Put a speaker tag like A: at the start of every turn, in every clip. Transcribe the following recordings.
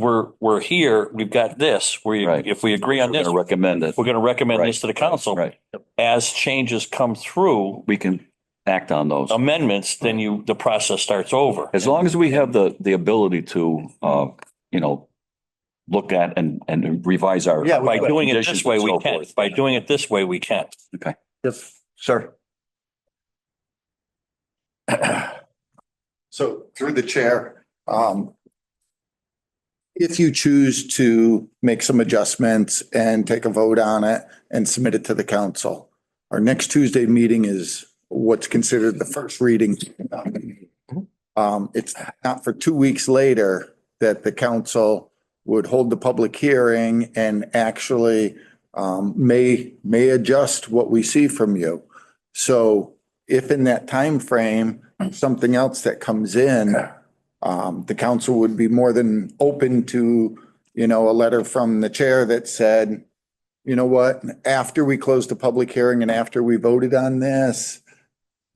A: we're, we're here, we've got this, we,
B: Right.
A: if we agree on
B: We're
A: this,
B: gonna recommend it.
A: we're going to recommend this to the council.
B: Right.
A: As changes come through,
B: We can act on those.
C: Um,
A: amendments, then you, the process starts over.
B: As long as we have the, the ability to, uh, you know, look at and, and revise our.
C: Yeah, we-
A: By doing it
B: Conditions
A: this way,
B: and
A: we
B: so
A: can.
B: forth.
A: By doing it this way, we can.
C: Yes, sir.
D: So through the chair, um, if you choose to make some adjustments and take a vote on it and submit it to the council, our next Tuesday meeting is what's considered the first reading. Um, it's not for two weeks later that the council would hold the public hearing and actually um, may, may adjust what we see from you. So if in that time frame something else that comes in, um, the council would be more than open to, you know, a letter from the chair that said, you know what, after we closed the public hearing and after we voted on this,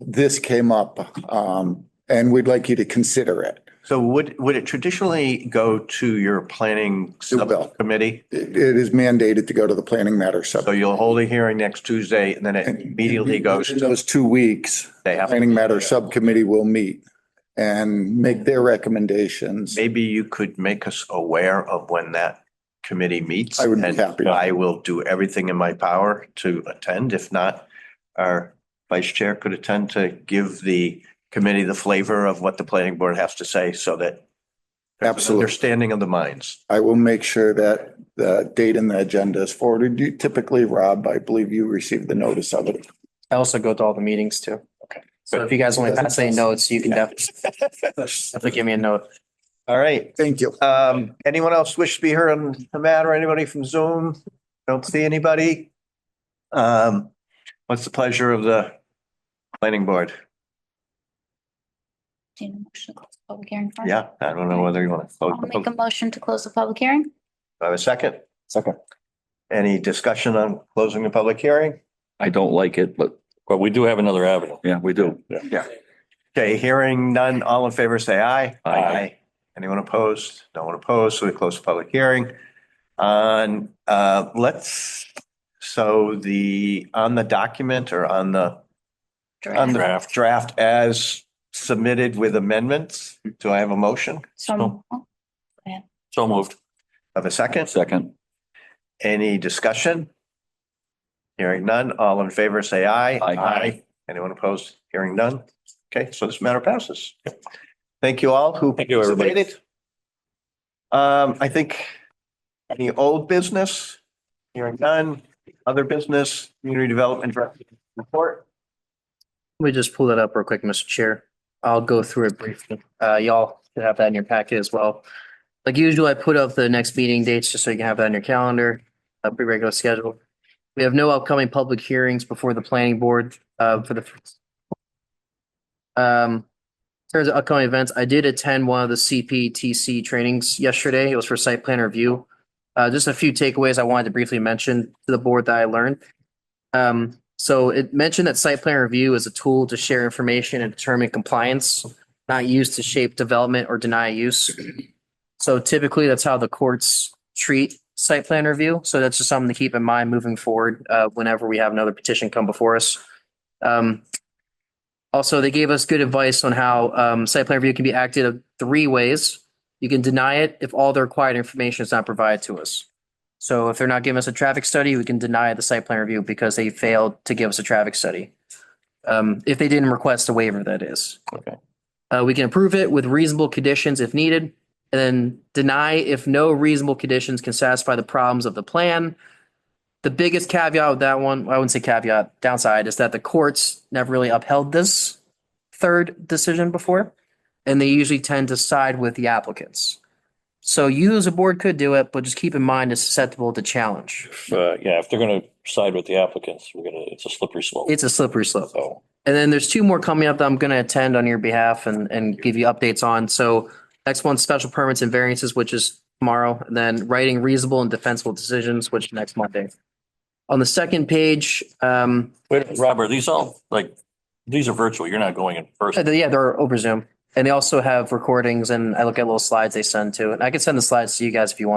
D: this came up, um, and we'd like you to consider it.
C: So would, would it traditionally go to your planning
D: It will.
C: subcommittee?
D: It it is mandated to go to the planning matter
C: So
D: sub.
C: you'll hold a hearing next Tuesday and then it immediately goes
D: In
C: to,
D: Those two weeks,
C: they have,
D: planning matter subcommittee will meet and make their recommendations.
C: maybe you could make us aware of when that committee meets.
D: I would be
C: and
D: happy.
C: I will do everything in my power to attend. If not, our vice chair could attend to give the committee the flavor of what the planning board has to say so that there's an
D: Absolutely.
C: understanding of the minds.
D: I will make sure that the date and the agenda is forwarded. You typically, Rob, I believe you received the notice of it.
E: I also go to all the meetings too. Okay. So if you guys want to pass any notes, you can definitely, definitely give me a note.
C: All right.
D: Thank you.
C: Um, anyone else wish to be heard on the matter? Anybody from Zoom? Don't see anybody? Um, what's the pleasure of the planning board?
F: Do you need a motion to close the public hearing first?
C: Yeah, I don't know whether you want to. close
F: I'll
C: the
F: make a
C: public-
F: motion to close the public hearing.
C: Do I have a second.
B: Second.
C: Any discussion on closing the public hearing?
B: I don't like it, but
A: But we do have another avenue.
B: yeah, we do.
C: Okay, hearing none. All in favor, say aye.
B: Aye.
C: Anyone opposed? No one opposed. So we close the public hearing. On, uh, let's, so the, on the document or on the On the
F: Draft.
C: draft, draft as submitted with amendments. Do I have a motion?
F: So,
A: So moved.
C: Have a second?
B: Second,
C: Any discussion? Hearing none. All in favor, say aye.
B: Aye.
C: Anyone opposed? Hearing none. Okay, so this matter passes. Thank you all who
A: Thank you, everybody.
C: participated. Um, I think any old business, hearing none, other business, community development director report.
E: Let me just pull that up real quick, Mr. Chair. I'll go through it briefly. Uh, y'all should have that in your packet as well. Like usual, I put up the next meeting dates just so you can have that on your calendar, a pretty regular schedule. We have no upcoming public hearings before the planning board, uh, for the um, in terms of upcoming events, I did attend one of the CPTC trainings yesterday. It was for site plan review. Uh, just a few takeaways I wanted to briefly mention to the board that I learned. Um, so it mentioned that site plan review is a tool to share information and determine compliance, not used to shape development or deny use. So typically, that's how the courts treat site plan review. So that's just something to keep in mind moving forward, uh, whenever we have another petition come before us. Um, also, they gave us good advice on how, um, site plan review can be acted of three ways. You can deny it if all the required information is not provided to us. So if they're not giving us a traffic study, we can deny the site plan review because they failed to give us a traffic study. Um, if they didn't request a waiver, that is.
A: Okay.
E: Uh, we can approve it with reasonable conditions if needed, and then deny if no reasonable conditions can satisfy the problems of the plan. The biggest caveat with that one, I wouldn't say caveat, downside is that the courts never really upheld this third decision before, and they usually tend to side with the applicants. So you as a board could do it, but just keep in mind it's susceptible to challenge.
A: If, uh, yeah, if they're going to side with the applicants, we're going to, it's a slippery slope.
E: It's a slippery slope.
A: So
E: And then there's two more coming up that I'm going to attend on your behalf and, and give you updates on. So next one's special permits and variances, which is tomorrow, and then writing reasonable and defensible decisions, which is next Monday. On the second page, um,
A: Robert, these all, like, these are virtual. You're not going in person.
E: yeah, uh, they're over Zoom. And they also have recordings and I look at little slides they send too. And I can send the slides to you guys if you want.